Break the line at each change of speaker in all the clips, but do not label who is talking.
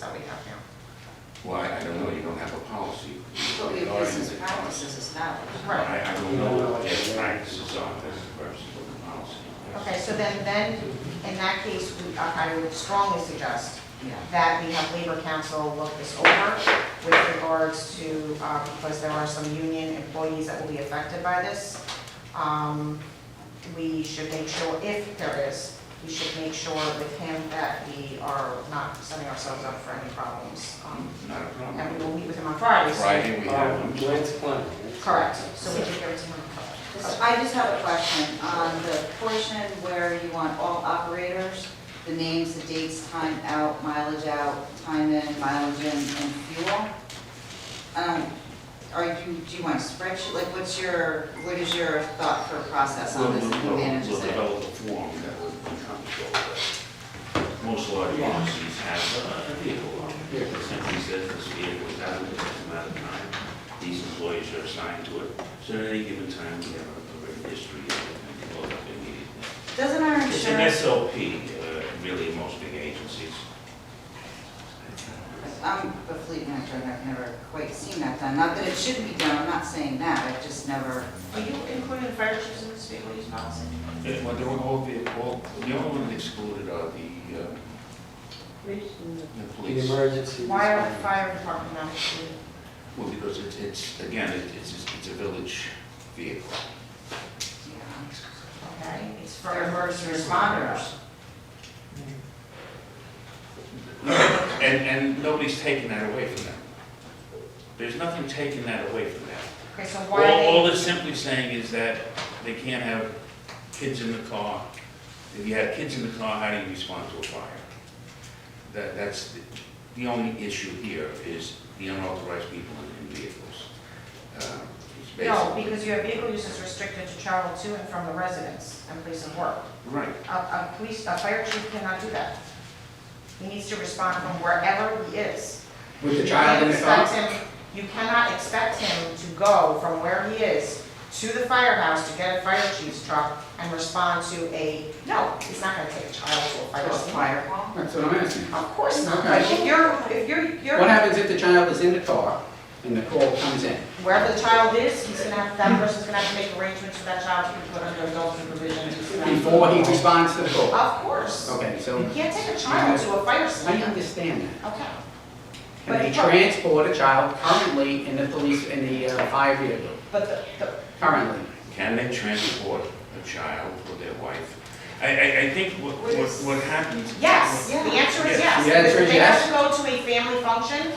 that we have now.
Why, I don't know, you don't have a policy.
But we have business practices established.
Right,
I, I don't know what their practices are, that's versus what the policy. is.
okay, so then, then, in that case, we- uh, I I would strongly suggest
Yeah.
that we have Labor Council look this over with regards to, uh, because there are some union employees that will be affected by this. Um, We should make sure, if there is, we should make sure with him that we are not setting ourselves up for any problems. Um,
Not a problem.
And we will meet with him on Friday, so-
Friday, we
Um,
have,
Glenn's plan.
Correct, so we can give it to him.
So I just have a question on the portion where you want all operators, the names, the dates, time out, mileage out, time in, mileage in, and fuel. Um, Are you, do you want a spreadsheet? Like, what's your, what is your thought for process
we'll,
on this? and Who
we'll,
manages
we'll
it?
develop a form that will encompass all that. Most large
Yeah.
policies have a vehicle on
Yeah.
it, It simply says this vehicle is out of this amount of time, these employees are assigned to it, so at any given time, we have a written history of it, and can load up immediately.
Doesn't our
It's an
insurance,
SOP, uh, really, most big agencies.
I'm a fleet manager, and I've never quite seen that done. Not that it shouldn't be done, I'm not saying that, I've just never.
Are you including fire chiefs in this vehicle use policy?
It- Well, they were all the, all, the only one that excluded are the, uh, the
The
police.
emergency.
Why are
response.
fire department not included?
Well, because it's, it's, again, it- it's, it's a village vehicle.
yeah.
Okay, it's for
They're first
emergency
responders.
responders.
And, and nobody's taking that away from them. There's nothing taking that away from them.
Okay, so
All,
why
all
oh,
are
it's simply saying is that they can't have kids in the car. If you have kids in the car, how do you respond to a fire? That, that's, the- the only issue here is the unauthorized people in in vehicles. Uh, It's
they, no,
basically,
because your vehicle use is restricted to travel to and from the residence and place of work.
right,
A, a police, a fire chief cannot do that. He needs to respond from wherever he is.
With the child in the
You
car?
can't expect him- You cannot expect him to go from where he is to the firehouse to get a fire chief's truck and respond to a, no, he's not gonna take a child to a fire
Just
station.
fire hall?
That's what I'm asking.
Of course not,
Okay.
but if you're, if you're, you're.
What happens if the child is in the car and the call comes in?
wherever the child is, he's gonna have, that person's gonna have to make arrangements for that child to be put under adult supervision. He's gonna-
Before he responds to the call?
Of course.
Okay, so
You can't take a child to a fire
I
station.
understand that.
Okay.
Can we transport a child currently in the police, in the uh, fire vehicle?
But the, the,
Currently?
can they transport a child or their wife? I, I, I think what, what what happens.
yes, the answer is yes.
The answer is
They have to go to a family function,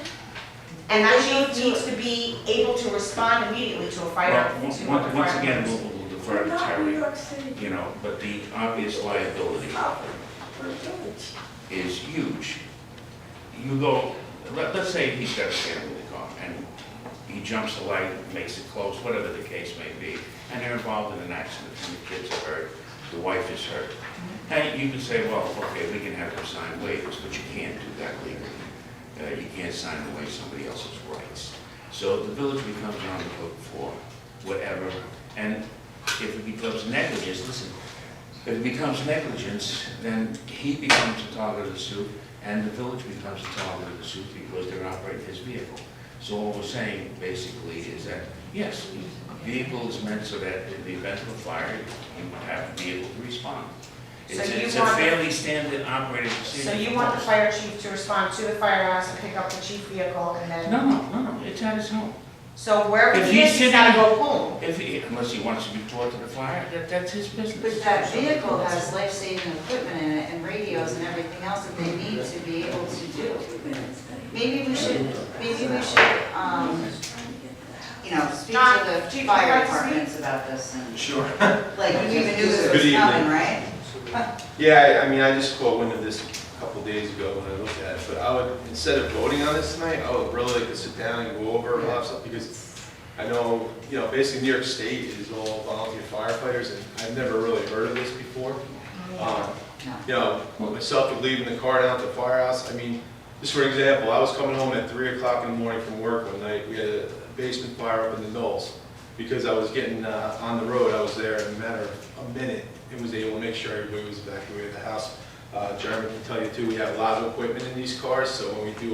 and that chief needs to be able to respond immediately to a fire.
Well,
to
once,
a
once once
fire-
again, we'll we'll defer to
Not New
Terry.
York City,
you know, but the obvious liability
we're village.
is huge. You go, let, let's say he's got a family car, and he jumps the light, makes it close, whatever the case may be, and they're involved in an accident, and the kids are hurt, the wife is hurt. And you can say, well, okay, we can have them sign waivers, but you can't do that legally. Uh, you can't sign away somebody else's rights. So the village becomes on the hook for whatever, and if it becomes negligence, listen, if it becomes negligence, then he becomes the target of the suit, and the village becomes the target of the suit because they're operating his vehicle. So all we're saying basically is that, yes, the vehicle is meant so that in the event of a fire, you would have the vehicle to respond.
So
It's
you
it's a
want-
fairly standard operating procedure.
So you want the fire chief to respond to the firehouse and pick up the chief vehicle and then,
No, no, no, no, it's at his home.
so wherever
If
he
he's
is, he's gotta
sitting-
go home.
If he, unless he wants to report to the fire, that, that's his business.
But that vehicle has life-saving equipment in it and radios and everything else that they need to be able to do. Maybe we should, maybe we should, um, you know, speak
John,
to
do
the
you
fire
like to speak?
departments about this and,
Sure.
like, you even knew
Good
this was
evening.
coming, right?
Yeah, I I mean, I just caught wind of this a couple days ago when I looked at it, but I would, instead of voting on this tonight, I would really like to sit down and go over a lot of stuff, because I know, you know, basically New York State is all volunteer firefighters, and I've never really heard of this before. Um,
No.
You know, myself would leave in the car down at the firehouse, I mean, just for example, I was coming home at three o'clock in the morning from work one night, we had a basement fire up in the Knolls. Because I was getting, uh, on the road, I was there in a matter of a minute, and was able to make sure everybody was evacuated the house. Uh, Jeremy can tell you too, we have a lot of equipment in these cars, so when we do